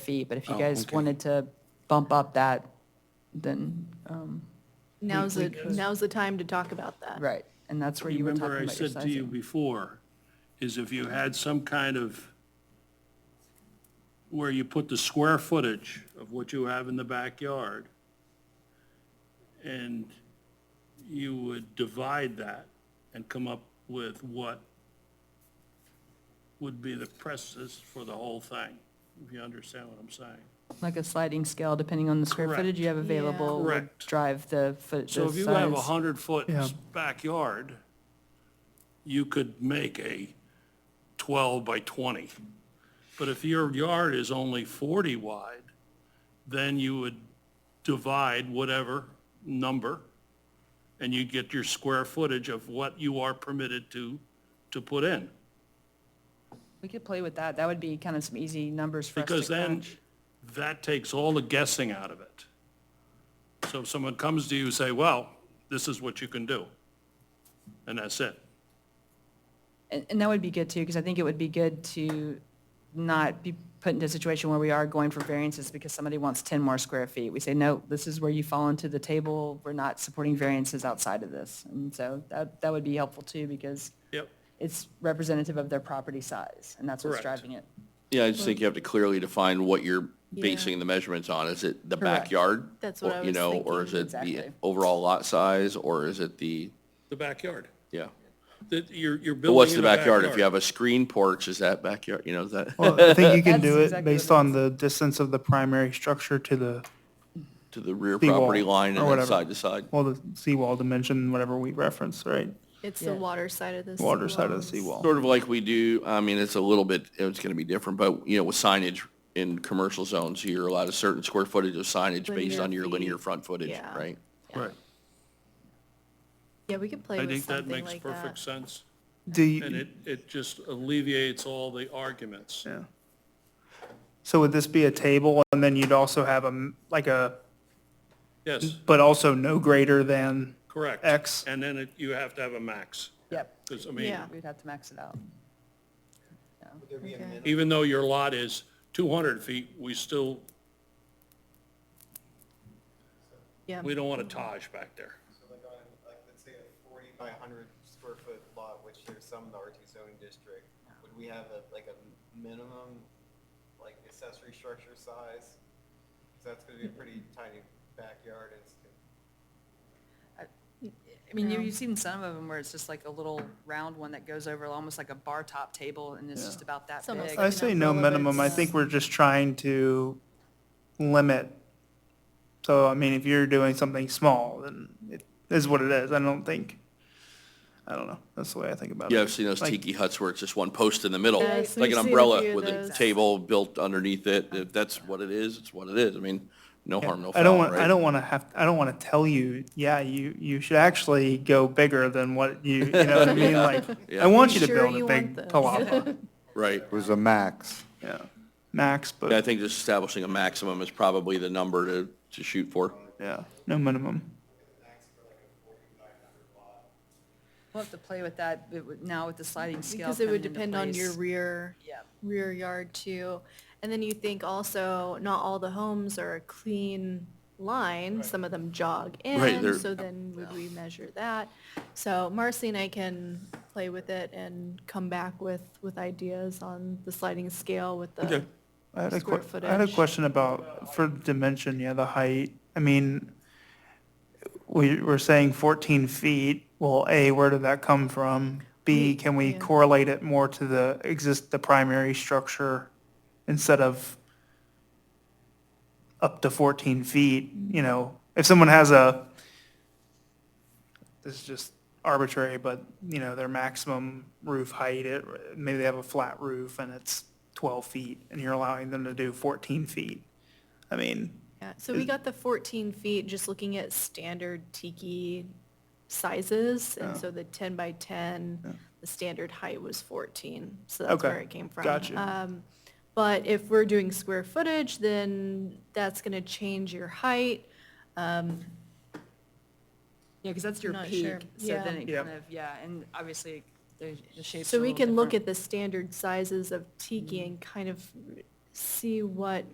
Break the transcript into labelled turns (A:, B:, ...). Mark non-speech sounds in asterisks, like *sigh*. A: feet, but if you
B: Oh,
A: guys
B: okay.
A: wanted to bump up that, then, um,
C: Now's the, now's the time to talk about that.
A: right, and that's where you were
B: Remember
A: talking
B: I
A: about your
B: said to you
A: sizing.
B: before, is if you had some kind of, where you put the square footage of what you have in the backyard, and you would divide that and come up with what would be the presses for the whole thing, if you understand what I'm saying.
A: Like a sliding scale, depending on the square
B: Correct.
A: footage you have available, would
B: Correct.
A: drive the foot,
B: So
A: the
B: if you have a
A: size.
B: hundred foot backyard, you could make a twelve by twenty. But if your yard is only forty wide, then you would divide whatever number and you'd get your square footage of what you are permitted to, to put in.
A: We could play with that, that would be kind of some easy numbers for us to
B: Because then,
A: crunch.
B: that takes all the guessing out of it. So if someone comes to you and say, well, this is what you can do, and that's it.
A: And, and that would be good too, because I think it would be good to not be put into a situation where we are going for variances because somebody wants ten more square feet. We say, no, this is where you fall into the table, we're not supporting variances outside of this. And so that, that would be helpful too, because
B: Yep.
A: it's representative of their property size, and that's what's
B: Correct.
A: driving it.
D: Yeah, I just think you have to clearly define what you're
C: Yeah.
D: basing the measurements on. Is it the
A: Correct.
D: backyard?
C: That's what
D: Or-
C: I
D: You
C: was
D: know, or is
C: thinking.
D: it the
A: Exactly.
D: overall lot size, or is it the,
B: The backyard.
D: yeah?
B: That you're, you're building
D: But what's
B: in
D: the
B: a
D: backyard? If you have a screen porch, is that backyard, you know, is that
E: Well, Oh, I think you can
A: That's
E: do it
A: exactly
E: based
A: what it
E: on the distance of the primary structure to the,
D: *laughs* to the rear
E: The wall,
D: property line
E: or
D: and then
E: whatever.
D: side to side?
E: well, the seawall dimension, whatever we reference, right?
C: It's the
A: Yeah.
C: water side of the seawall.
E: Water side of the seawall.
D: Sort of like we do, I mean, it's a little bit, it's going to be different, but, you know, with signage in commercial zones, you're allowed a certain square footage of signage based
C: Linear
D: on your
C: feet.
D: linear front footage,
C: Yeah.
D: right?
B: Right.
C: Yeah, we could play
B: I
C: with
B: think that
C: something
B: makes
C: like
B: perfect
C: that.
B: sense,
E: Do
B: and
E: you,
B: it, it just alleviates all the arguments.
E: yeah. So would this be a table and then you'd also have a, m- like a,
B: Yes,
E: but also no greater than,
B: correct.
E: X.
B: And then it, you have to have a max,
A: Yep,
B: because, I mean,
C: Yeah.
A: we'd have to max it out.
C: Okay.
B: even though your lot is two hundred feet, we still,
C: Yeah,
B: we don't want a Taj back there.
F: So like on, like, let's say a forty by hundred square foot lot, which there's some in the R two zoning district, would we have a, like a minimum, like accessory structure size? 'Cause that's gonna be a pretty tiny backyard, it's,
A: I mean, you-
C: Yeah.
A: you've seen some of them where it's just like a little round one that goes over almost like a bar top table, and it's just about that
C: It's almost
A: big.
C: like
E: I
C: an
E: say no
C: umbrella, but
E: minimum, I
C: it's-
E: think we're just trying to limit. So, I mean, if you're doing something small, then it is what it is. I don't think, I don't know. That's the way I think about it.
D: Yeah, I've seen those
E: Like-
D: tiki huts where it's just one post in the middle,
C: Yes,
D: like
C: we've
D: an
C: seen a few
D: umbrella
C: of
D: with a
C: those.
D: table built underneath it. If that's what it is, it's what it is. I mean, no harm, no
E: I don't
D: foul,
E: want,
D: right?
E: I don't want to have, I don't want to tell you, yeah, you, you should actually go bigger than what you, you know what I
D: *laughs*
E: mean? Like,
D: Yeah.
E: I want you to
C: Sure
E: build
C: you
E: a
C: want
E: big
C: this. *laughs*
E: palapa,
D: Right.
G: was a max.
E: yeah, max,
D: Yeah, I
E: but,
D: think just establishing a maximum is probably the number to, to shoot for.
E: yeah, no minimum.
A: We'll have to play with that it would- now with the sliding scale.
C: because it would
A: coming into
C: depend on your
A: place.
C: rear,
A: Yeah.
C: rear yard too. And then you think also, not all the homes are a clean line, some of them jog
D: Right,
C: in,
D: they're-
C: so then would we measure that? So Marcy and I can play with it and come back with, with ideas on the sliding scale with the,
E: I had a
C: square
E: que- I had a
C: footage.
E: question about, for dimension, yeah, the height. I mean, we, we're saying 14 feet. Well, A, where did that come from? B, can we
C: yeah.
E: correlate it more to the exist, the primary structure instead of up to 14 feet? You know, if someone has a, this is just arbitrary, but, you know, their maximum roof height, it, maybe they have a flat roof and it's twelve feet, and you're allowing them to do fourteen feet. I mean,
C: yeah, so we got the fourteen feet, just looking at standard tiki sizes,
E: Oh.
C: and so the ten by ten, the standard height was fourteen, so that's
E: Okay,
C: where it came from.
E: gotcha.
C: Um, But if we're doing square footage, then that's gonna change your height,
A: Yeah, because that's your
C: Not sure.
A: peak, so then it
E: Yeah.
A: kind of, yeah, and obviously, the the shape's
C: So
A: a
C: we
A: little
C: can look
A: different.
C: at the standard sizes of tiki and kind of see what